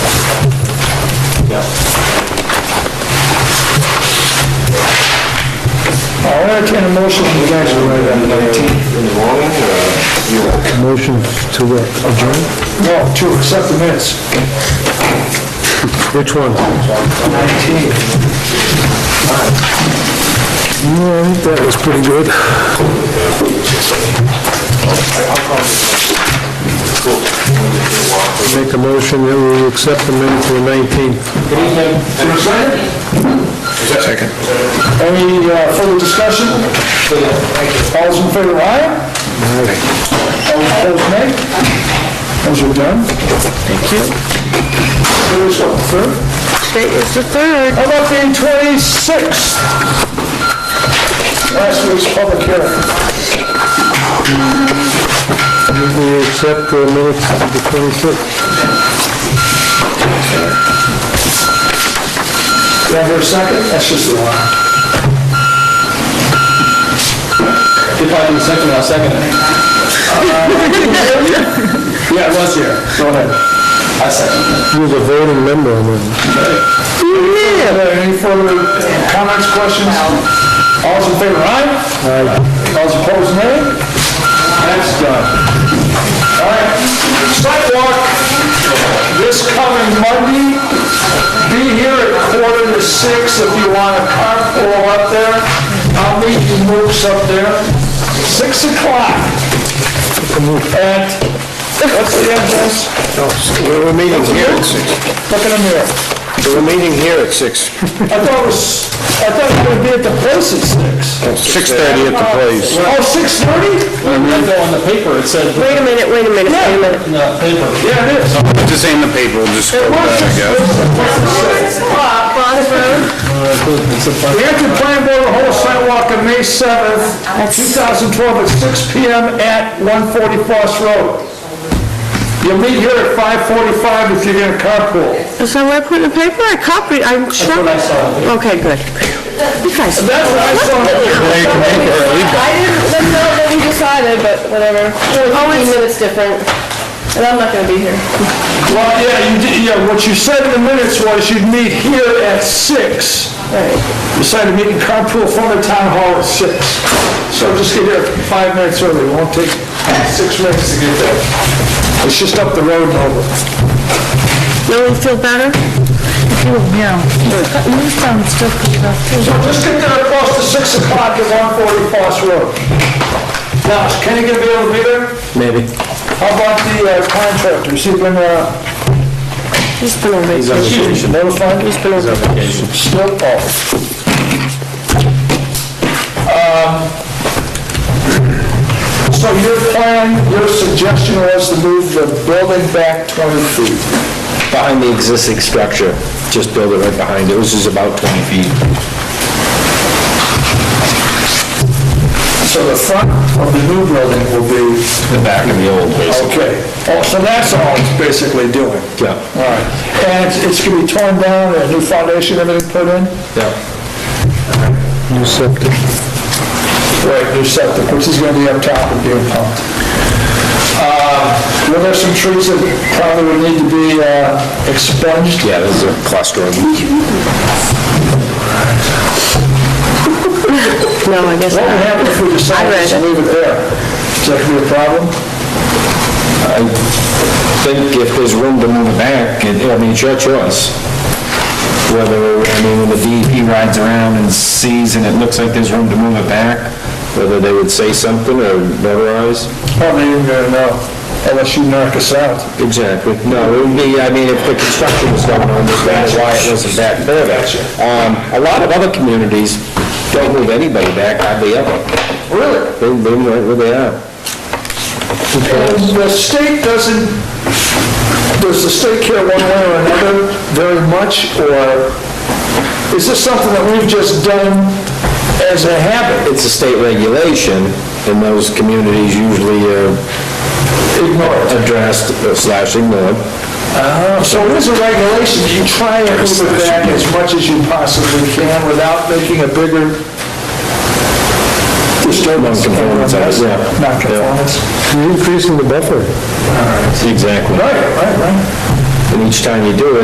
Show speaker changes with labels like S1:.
S1: I'll entertain a motion. You guys are right on the 19th.
S2: In the morning, or?
S3: Motion to what? adjourn?
S1: No, to accept the minutes.
S3: Which one? Yeah,
S1: 19.
S3: I think that was pretty good. Make a motion that we accept the minutes for the 19th.
S1: Is there a second?
S2: Second.
S1: Any uh, further discussion? All those in favor, aye? All opposed, nay? Those are done. Thank you. There is what, the third?
S4: Today is the third.
S1: How about the 26th? Last week's public hearing.
S3: We accept the minutes of the 26th.
S1: Do I hear a second? That's just the one. If I can second, I'll second it. Yeah, it was here. Go ahead. I second.
S3: You're the voting member on that.
S1: Any further comments, questions? All's in favor, aye? Aye. All's opposed, nay? That's done. All right, sidewalk this coming Monday. Be here at quarter to six if you want to carpool up there. I'll meet you mooks up there. Six o'clock. At, what's the address?
S2: We're meeting here at six.
S1: Look in the mirror.
S2: We're meeting here at six.
S1: I thought it was, I thought it would be at the place at six.
S2: Six thirty at the place.
S1: Oh, six thirty?
S5: On the paper, it said,
S4: Wait a minute, wait a minute, wait a minute.
S5: in the paper,
S1: Yeah, it is.
S2: This ain't the paper, we'll just go
S1: It was
S2: back, I
S1: six
S2: guess.
S1: thirty, the place at six.
S5: it's a
S1: The Acton Plan Board will hold a sidewalk on May seventh, two thousand twelve, at six P M. at one forty Foss Road. You'll meet here at five forty-five if you're gonna carpool.
S4: Is that what I put in the paper? I copied, I'm sure.
S1: what I saw.
S4: Okay, good. You guys.
S1: That's what I saw.
S6: I didn't, that's not what we decided, but whatever. Always minutes different. And I'm not gonna be here.
S1: Well, yeah, you did, yeah, what you said in the minutes was you'd meet here at six. You said to meet in carpool from the town hall at six. So just get here five minutes early, it won't take six minutes to get there. It's just up the road and over.
S4: No one feel better?
S1: So just get there across to six o'clock at one forty Foss Road. Now, is Kenny gonna be able to be there?
S3: Maybe.
S1: How about the uh, contractor, is he gonna, uh,
S4: He's been on vacation.
S1: excuse me, notify me? Still off. Um, So your plan, your suggestion was to move the building back 20 feet.
S7: behind the existing structure, just build it right behind it, which is about 20 feet.
S1: So the front of the new building will be,
S7: The back of the old, basically.
S1: okay. Oh, so that's all it's basically doing?
S7: Yeah,
S1: All right. And it's- it's going to be torn down and a new foundation, everything put in?
S7: yeah.
S3: You accept it.
S1: Right, new septic, which is going to be up top and being pumped. Uh, Were there some trees that probably would need to be uh, expunged?
S7: Yeah, there's a cluster of them.
S4: No, I guess
S1: What would
S4: not.
S1: happen if we
S4: I
S1: decided
S4: read
S1: to
S4: it.
S1: leave it there? Is that going to be a problem?
S7: think if there's room to move it back, it- I mean, it's your choice. Whether, I mean, when the DEP rides around and sees and it looks like there's room to move it back, whether they would say something or memorize.
S1: Probably even going to know, unless you knock us out.
S7: Exactly. No, it would be, I mean, if the construction was going on, there's no why it wasn't back there. Um, a lot of other communities don't move anybody back, hardly ever. Really? They, they, move right where they are.
S1: And the state doesn't, does the state care one way or another very much, or is this something that we've just done as a habit?
S7: It's a state regulation, and those communities usually uh, are
S1: Ignored.
S7: addressed slash ignored.
S3: Uh-huh.
S1: So it is a regulation, you try and move it back as much as you possibly can without making a bigger disturbance.
S7: Non-conformance, I guess, yeah.
S1: Non-conformance.
S3: You're increasing the buffer.
S7: Exactly.
S1: Right, right, right.
S7: And each time you do it,